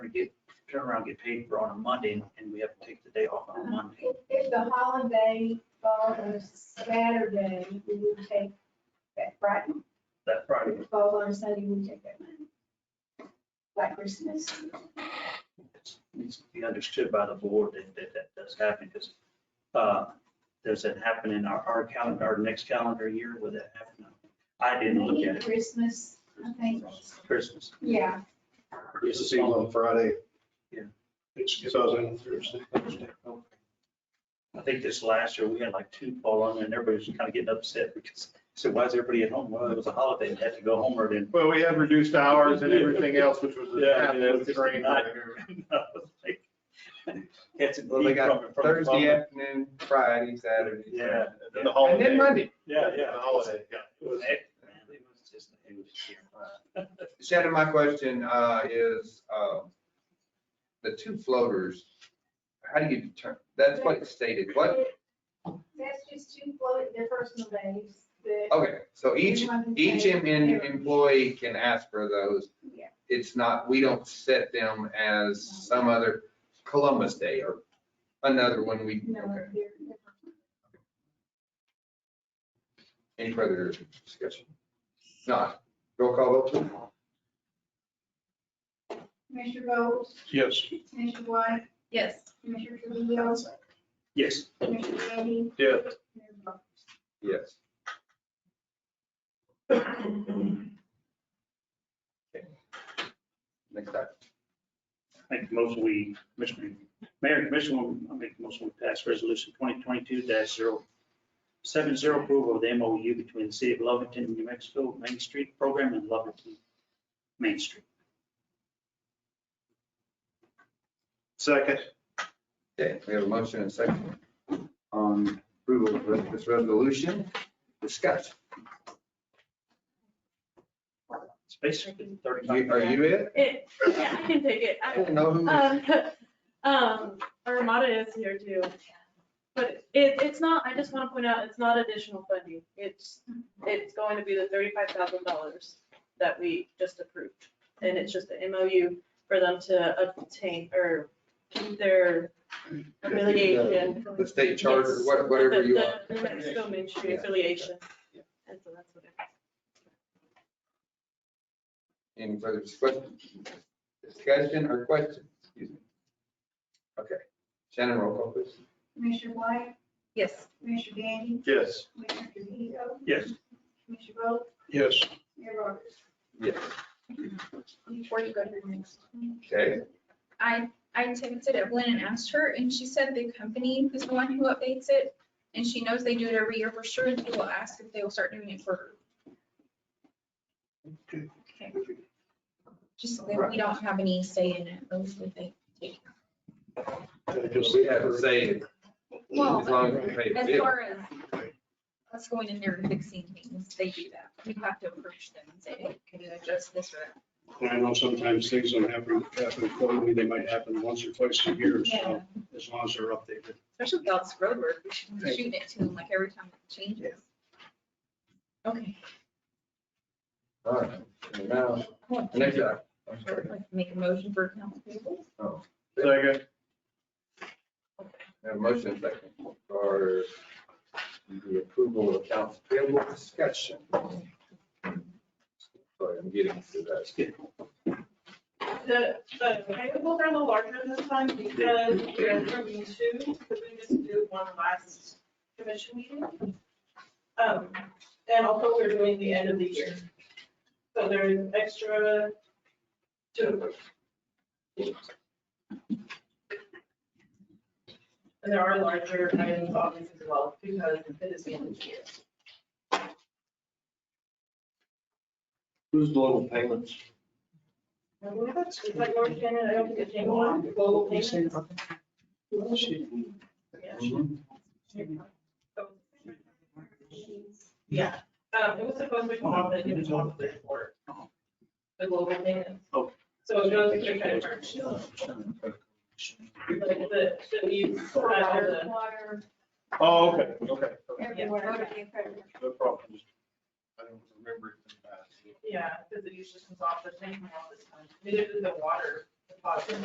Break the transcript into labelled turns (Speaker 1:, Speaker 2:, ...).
Speaker 1: turn around, get paid for on a Monday, and- and we have to take the day off
Speaker 2: Uh-huh.
Speaker 1: on a Monday.
Speaker 2: If, if the holiday falls on a Saturday, we would take that Friday.
Speaker 1: That Friday,
Speaker 2: If it falls on a Sunday, we take that Monday. Like Christmas.
Speaker 1: it's- needs to be understood by the board that that, that does happen, because, uh, does it happen in our, our calendar, our next calendar year, would that happen? I didn't look at it,
Speaker 2: Christmas, I think,
Speaker 1: Christmas.
Speaker 2: yeah.
Speaker 3: Christmas Eve on Friday.
Speaker 1: Yeah.
Speaker 3: It's, it's always on Thursday.
Speaker 1: I think this last year, we had like two fall on, and everybody was kind of getting upset because, so why is everybody at home? Well, it was a holiday, and had to go home or then.
Speaker 3: Well, we had reduced hours and everything else, which was
Speaker 1: Yeah, I mean, that was
Speaker 3: absolute
Speaker 1: just a
Speaker 3: train
Speaker 1: nightmare. Had to
Speaker 4: Well, they
Speaker 1: leave
Speaker 4: got
Speaker 1: from, from.
Speaker 4: Thursday afternoon, Friday, Saturday.
Speaker 1: Yeah.
Speaker 3: And the
Speaker 4: And
Speaker 3: holiday.
Speaker 4: then Monday.
Speaker 1: Yeah, yeah.
Speaker 3: The holiday, yeah.
Speaker 1: It was- it was just- it was just-
Speaker 4: Shannon, my question uh, is, uh, the two floaters, how do you determine, that's what it stated, what,
Speaker 2: That's just two float, their personal days. that-
Speaker 4: okay, so Oh, each,
Speaker 2: Everyone's
Speaker 4: each
Speaker 2: days.
Speaker 4: em- em- employee can ask for those.
Speaker 2: Yeah.
Speaker 4: It's not, we don't set them as some other Columbus Day or another one we,
Speaker 2: No,
Speaker 4: okay.
Speaker 2: they're- they're-
Speaker 4: Any further discussion? Not, roll call vote.
Speaker 2: Commissioner Bowles,
Speaker 3: Yes.
Speaker 2: Commissioner White,
Speaker 5: Yes.
Speaker 2: Commissioner Trujillo,
Speaker 1: Yes,
Speaker 2: Commissioner Eddy.
Speaker 3: Yeah.
Speaker 2: Mayor Bowles.
Speaker 4: Yes. Okay. Next item.
Speaker 6: Make the motion, we, Commissioner, Mayor and Commissioner, I make the motion, we pass resolution twenty twenty-two 70 approval of the MOU between the city of Lovington, New Mexico, Main Street Program and Lovington Main Street.
Speaker 3: Second.
Speaker 4: Okay, we have a motion and a second on approval of this resolution. Discuss.
Speaker 1: it's basically
Speaker 4: Are
Speaker 1: thirty-five.
Speaker 4: you are you it?
Speaker 5: It, yeah, I can take it.
Speaker 4: I
Speaker 5: I-
Speaker 4: didn't know who.
Speaker 5: Um, um, Armada is here too. But it, it's not, I just want to point out, it's not additional funding. It's, it's going to be the thirty-five thousand dollars that we just approved. And it's just an MOU for them to obtain or keep their affiliation.
Speaker 4: The state charter,
Speaker 5: Yes.
Speaker 4: what- whatever
Speaker 5: The-
Speaker 4: you
Speaker 5: the
Speaker 4: want.
Speaker 5: New Mexico Main Street
Speaker 4: Yeah.
Speaker 5: affiliation.
Speaker 4: Yeah.
Speaker 5: And so that's what it is.
Speaker 4: Any further discussion? Discussion or question? Excuse me. Okay. Shannon, roll call please.
Speaker 2: Commissioner White,
Speaker 5: Yes.
Speaker 2: Commissioner Gandy,
Speaker 3: Yes.
Speaker 2: Commissioner Trujillo,
Speaker 1: Yes,
Speaker 2: Commissioner Bowles,
Speaker 3: Yes.
Speaker 2: Mayor Roberts.
Speaker 4: Yes.
Speaker 2: Before you go to the next.
Speaker 4: Okay.
Speaker 7: I, I texted Evelyn and asked her, and she said the company is the one who updates it, and she knows they do it every year for sure, and she will ask if they will start doing it for her. Okay. Just so that we don't have any say in it, mostly they take.
Speaker 4: We have to say it as
Speaker 7: Well,
Speaker 4: long as we pay the
Speaker 7: as
Speaker 4: bill.
Speaker 7: far as us going in there and fixing things, they do that. We have to approach them and say, hey, can you adjust this or that?
Speaker 6: And I know sometimes things don't happen, happen quarterly, they might happen once or twice a year,
Speaker 7: Yeah.
Speaker 6: so as long as they're updated.
Speaker 7: Especially with all this road work, we should be shooting it to them like every time it changes. Okay.
Speaker 4: All right. And Now,
Speaker 7: I want to-
Speaker 4: next item. I'm sorry.
Speaker 7: Like, Make a motion for accounts payable?
Speaker 3: Second.
Speaker 4: We Oh, have a motion and a second for the approval of accounts payable discussion. Sorry, I'm getting to that.
Speaker 8: The, the payables are a little larger this time because we're approving two, because we just did one last commission meeting. Um, and also we're doing the end of the year. So there's extra to approve. And there are larger items obviously as well because it is the end of the year.
Speaker 6: Who's global payments?
Speaker 8: Is that your opinion? I don't think it's anyone on global payments. Yeah. Yeah, um, it was supposed to come off, but it didn't come off the report. The global payments.
Speaker 1: Oh.
Speaker 8: So it goes to your credit card. Like the, so you provide all
Speaker 2: Water,
Speaker 8: the,
Speaker 2: water,
Speaker 3: Oh, okay, okay.
Speaker 2: everywhere.
Speaker 3: No problem. I don't remember it. from last year.
Speaker 8: yeah, because it usually comes off the same amount this time. Neither did the water deposit.